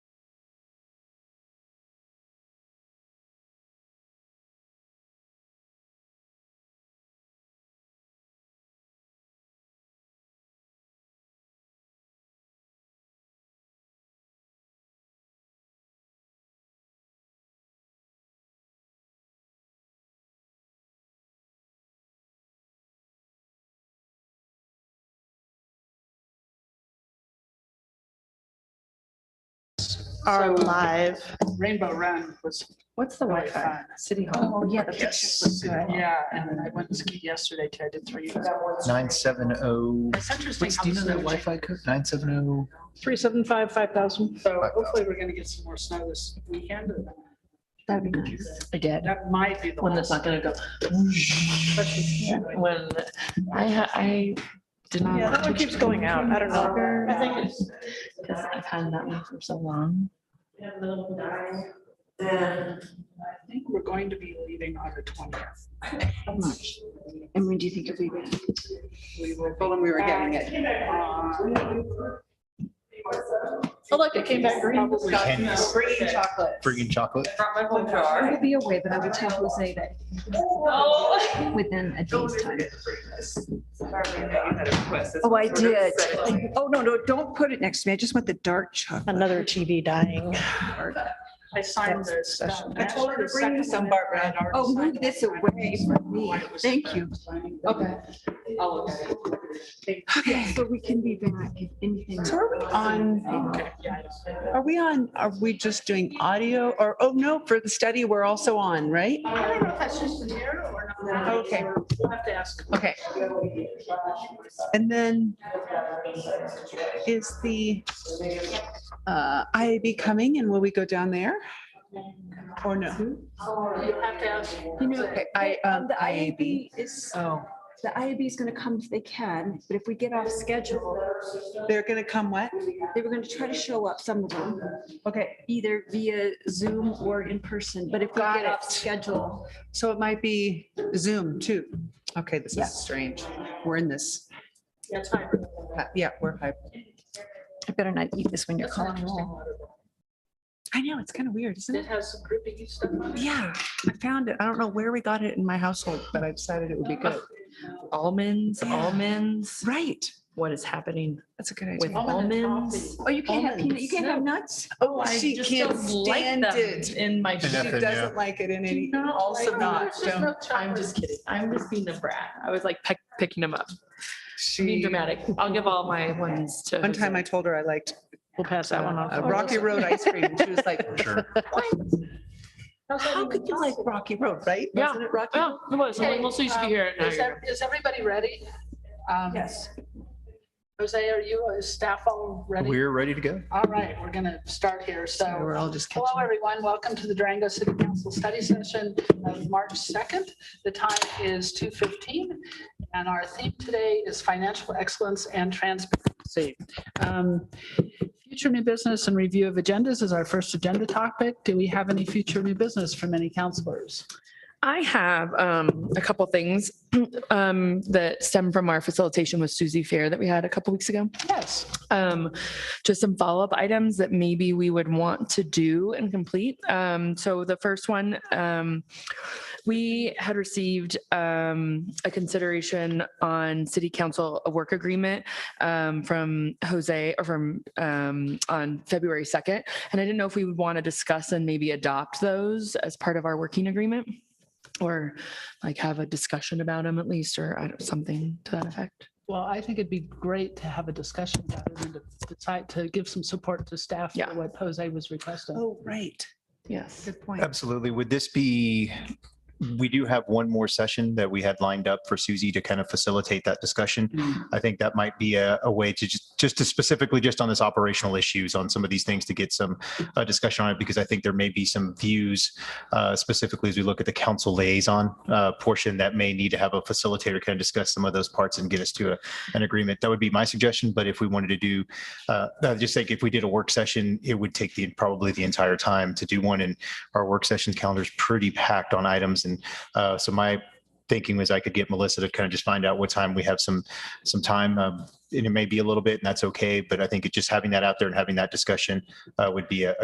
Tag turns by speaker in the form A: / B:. A: are
B: So-
A: live.
B: Rainbow Run was,
C: What's the
B: Really
C: Wi-Fi?
B: fun.
C: City Hall?
B: yeah, the
D: pictures
B: was
D: look good.
B: Yeah, and then I went and skied yesterday too. I did three.
D: Nine seven oh,
B: It's interesting.
D: what's,
B: how
D: do you know
B: the
D: that
B: snow
D: Wi-Fi code? Nine seven oh,
A: Three seven five, five thousand.
B: changes. So hopefully we're gonna get some more snow this weekend.
C: That'd be nice. I did.
B: That might be the.
C: One that's not gonna go. When I, ha- I did not.
A: Yeah, that one keeps going out. I don't know.
C: I think it's. Cause I've had that one for so long.
B: I think we're going to be leaving on the twentieth.
C: And when do you think it'll be ready?
B: We were, told them we were getting it. uh,
A: Oh, look, it came back green.
B: probably-
D: Candies.
A: Green chocolate.
D: friggin' chocolate.
E: my
A: Oh,
E: whole jar.
C: I'll be away, but I will tell Jose that within a day's time.
E: Oh, I did. Oh, no, no, don't put it next to me. I just want the dark chocolate.
A: Another TV dying.
B: I signed
A: That's
B: this.
A: special.
B: I told her to bring you some, Barbara.
E: Oh, move this away from me. Thank you. Oh,
B: Okay. I'll look at it.
C: Okay, so we can be back if anything.
E: So are we on,
B: Okay, yeah, I don't-
E: are we on, are we just doing audio or, oh, no, for the study, we're also on, right?
B: I don't know if that's just an error or not.
E: Okay.
B: We'll have to ask.
C: Okay.
E: And then is the uh, IAB coming and will we go down there? Or no?
B: You'll have to ask.
C: You know,
E: I, um,
C: the
E: IAB.
C: IAB is,
E: Oh,
C: the IAB is gonna come if they can, but if we get off schedule,
E: they're going to come what?
C: they were gonna try to show up, some of them,
E: Okay,
C: either via Zoom or in person, but if we
E: Got
C: get off
E: it.
C: schedule.
E: so it might be Zoom too. Okay, this is strange. We're in this,
B: Yeah, time.
E: uh, yeah, we're hyped.
C: I better not eat this when
B: That's an interesting letter.
E: I know, it's kind of weird, isn't
B: It
E: it?
B: has some groupie stuff on it.
E: Yeah, I found it. I don't know where we got it in my household, but I decided it would be good.
F: almonds,
E: Yeah.
F: almonds,
E: Right,
F: what is happening
E: that's a good
F: with
E: idea.
B: Almond and
F: almonds?
C: Oh, you can't have peanut, you can't have nuts?
E: Oh,
F: I
E: she
F: just
E: can't
F: don't like
E: stand
F: them
E: it.
F: In my,
E: She
F: food.
D: Nothing, yeah.
E: doesn't like it in any.
F: No,
E: Also
F: like,
E: not,
B: There's
E: don't.
B: no
F: I'm just kidding. I'm just being a brat. I was like peck, picking them up. Being dramatic. I'll give all my ones to.
E: One time I told her I liked
A: We'll pass that one
E: uh,
A: off.
E: Rocky Road ice cream. and She was like,
D: Sure.
E: how could you like Rocky Road, right?
F: Yeah.
E: Wasn't it Rocky?
F: Yeah, Oh, it was. Someone else used to be
B: um,
F: here. Now
B: Is
F: you're-
B: ev- is everybody ready? Um,
E: Yes.
B: Jose, are you, is staff all ready?
D: We're ready to go.
B: All right, we're going to start here.
E: So
B: So
E: We're all just
F: Oh,
E: catching.
B: Hello, everyone. Welcome to the Durango City Council Study Session of March 2nd. The time is 2:15, and our theme today is financial excellence and transparency. Um, Future new business and review of agendas is our first agenda topic. Do we have any future new business from any counselors?
F: I have um, a couple things um, that stem from our facilitation with Susie Fair that we had a couple weeks ago.
B: Yes.
F: um, just some follow-up items that maybe we would want to do and complete. Um, so the first one, um, we had received, um, a consideration on city council, a work agreement, um, from Jose or from, um, on February 2nd. And I didn't know if we would want to discuss and maybe adopt those as part of our working agreement or like have a discussion about them at least, or I don't, something to that effect.
B: Well, I think it'd be great to have a discussion about it and to decide to give some support to staff
F: Yeah.
B: for what Jose was requesting.
E: Oh, right.
F: Yes.
E: Good point.
D: Absolutely. Would this be, we do have one more session that we had lined up for Susie to kind of facilitate that discussion.
B: Mm.
D: I think that might be a, a way to just, just to specifically just on this operational issues on some of these things to get some uh, discussion on it, because I think there may be some views uh, specifically as we look at the council liaison uh, portion that may need to have a facilitator kind of discuss some of those parts and get us to a, an agreement. That would be my suggestion. But if we wanted to do, uh, I just think if we did a work session, it would take the, probably the entire time to do one. And our work sessions calendar is pretty packed on items. And uh, so my thinking was I could get Melissa to kind of just find out what time we have some, some time. um, And it may be a little bit and that's okay, but I think it just having that out there and having that discussion uh, would be a a